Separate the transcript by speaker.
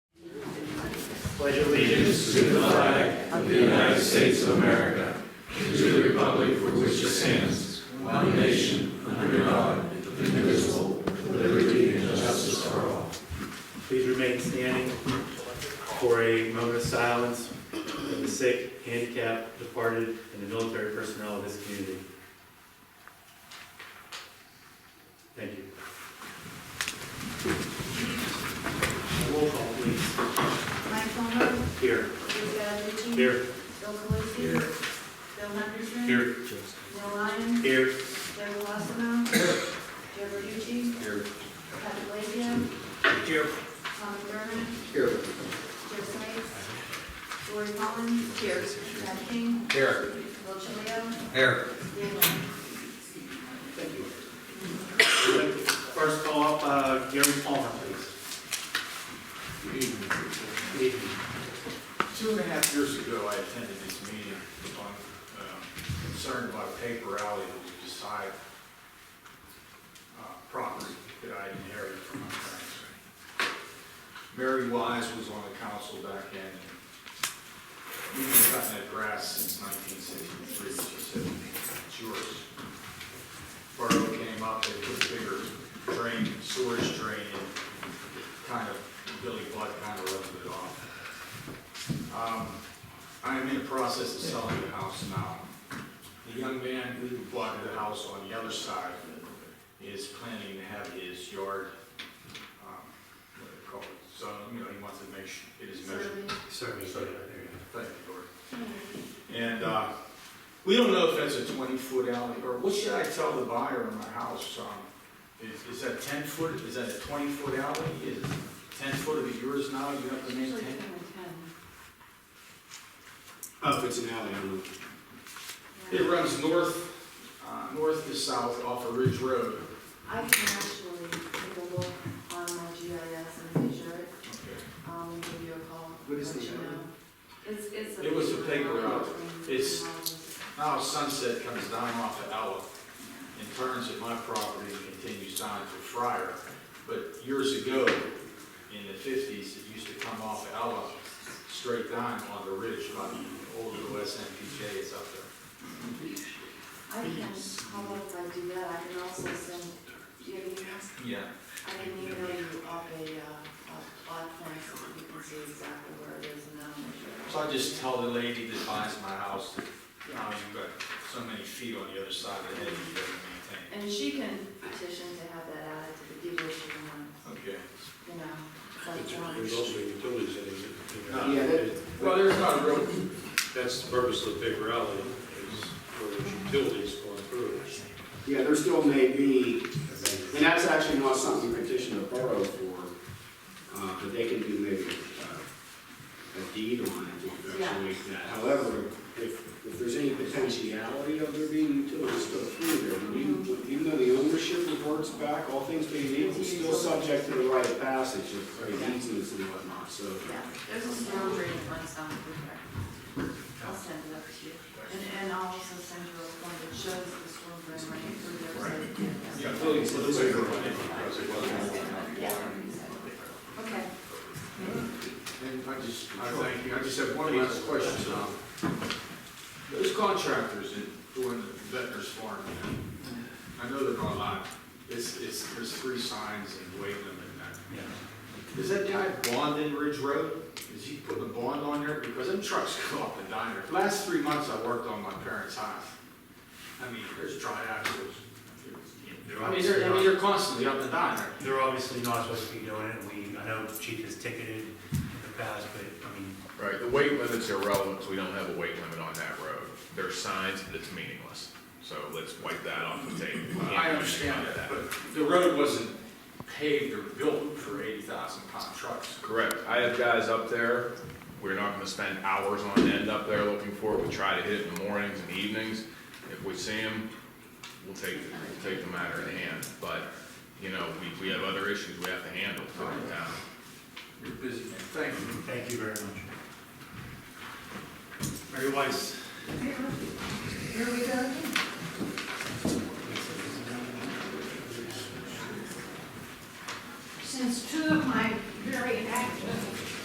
Speaker 1: pledge allegiance
Speaker 2: to the flag of the United States of America, and to the republic for which it stands, one nation, under God, indivisible, with liberty and justice for all.
Speaker 1: Please remain standing for a moment of silence for the sick, handicapped, departed, and the military personnel of this community. Thank you. Roll call, please.
Speaker 3: Mike Palmer,
Speaker 1: Here.
Speaker 3: Bruce Valentin.
Speaker 1: Here.
Speaker 3: Bill Calusi. Bill Henderson.
Speaker 1: Here.
Speaker 3: Neil Lyons.
Speaker 1: Here.
Speaker 3: Jerry Wassamo. Joe Verducci.
Speaker 1: Here.
Speaker 3: Patrick Blaziak.
Speaker 1: Here.
Speaker 3: Tom McDermott.
Speaker 1: Here.
Speaker 3: Joe Sykes. Lori Collins. Here. Matt King.
Speaker 4: Here.
Speaker 3: Bill Chilio.
Speaker 4: Here.
Speaker 3: Dan Lok.
Speaker 1: First call up, uh, Gary Palmer, please. Good evening.
Speaker 5: Two and a half years ago, I attended this meeting on, um, concerned about a paper alley that was beside uh, property that I inherited from my parents. Mary Wise was on the council back then. and We've been cutting that grass since nineteen sixty-three, she said, it's yours. Borough came up, they put a bigger drain, sewage drain, in, kind of, Billy Budd kind of rubbed it off. Um, I am in the process of selling the house now. The young man who bought the house on the other side is planning to have his yard, um, what do they call it? So, you know, he wants to make sure it is measured.
Speaker 3: Survey.
Speaker 1: Service, yeah, there you go.
Speaker 5: Thank you, Lord. And, uh, we don't know if that's a twenty-foot alley, or what should I tell the buyer in my house, um, is, is that ten foot, is that a twenty-foot alley? Is ten foot of it yours now, you have to
Speaker 3: Usually
Speaker 5: maintain?
Speaker 3: ten or
Speaker 6: Oh, if it's an alley, I'm looking.
Speaker 5: It
Speaker 3: ten. Yeah.
Speaker 5: runs north, uh, north to south off of Ridge Road.
Speaker 3: I can actually take a look on my GIS and measure it. Um, give you a call.
Speaker 6: What is
Speaker 3: let
Speaker 6: the
Speaker 3: you
Speaker 6: number?
Speaker 3: know. It's, it's.
Speaker 5: It was a paper route. It's-
Speaker 3: Um,
Speaker 5: Now Sunset comes down off of Ella and turns at my property and continues down to Friar. But years ago, in the fifties, it used to come off of Ella straight down on the ridge by the old USMPJ is up there.
Speaker 3: I can, how about if I do that, I can also send, do you have emails?
Speaker 5: Yeah.
Speaker 3: I can email you up a, uh, a plot plan so that you can see exactly where it is and then I'll measure it.
Speaker 5: So I just tell the lady that buys my house, that, you know, you've got so many feet on the other side of the hedge you gotta
Speaker 3: And she can petition to have that added to the deed and,
Speaker 5: maintain. Okay.
Speaker 3: you know, like, um,
Speaker 6: There's
Speaker 3: drawing.
Speaker 6: also utilities in it.
Speaker 5: No.
Speaker 6: Yeah, that-
Speaker 5: Well, there's not a real
Speaker 6: Ah, That's the purpose of the paper alley, is for those utilities going through it.
Speaker 7: Yeah, there still may be, and that's actually not something you petition the borough for, uh, but they can do maybe uh, a deed on it, or something like that. However, if, if there's any potentiality of there being utilities still through there, when you- even though the ownership reports back, all things being equal, it's still subject to the right of passage of of easements and whatnot, so.
Speaker 3: Yeah, there's a storm drain that runs down through there. I'll send it up to you. And, and I'll also send you a form that shows the storm drain running through there. so you can-
Speaker 5: Yeah, Billy, so this is your one.
Speaker 3: Yeah. Okay.
Speaker 5: And I just, I thank you, I just have one last question, Tom. Those contractors that doing the veterans farm, I know they're not allowed, it's, it's, there's three signs and weight limit and that. Is that guy bond in Ridge Road? Is he putting a bond on there? Because them trucks go up and down there. Last three months I worked on my parents' house. I mean, there's triaxles.
Speaker 1: They're
Speaker 5: I mean, they're, I mean, they're constantly up and down there.
Speaker 1: They're obviously not supposed to be doing it, we, I know Chief has ticketed in the past, but, I mean,
Speaker 8: Right, the weight limit's irrelevant, 'cause we don't have a weight limit on that road. There's signs, but it's meaningless. So let's wipe that off the table. We can't do
Speaker 5: I
Speaker 8: anything
Speaker 5: understand
Speaker 8: about
Speaker 5: that, but the road wasn't paved or built for eighty thousand pound trucks.
Speaker 8: Correct, I have guys up there, we're not gonna spend hours on end up there looking for it. We try to hit it in the mornings and evenings. If we see them, we'll take, we'll take the matter in hand. But, you know, we, we have other issues we have to handle for the town.
Speaker 5: You're busy, man. Thank you.
Speaker 1: thank you very much. Mary Weiss,
Speaker 9: Here we go. again.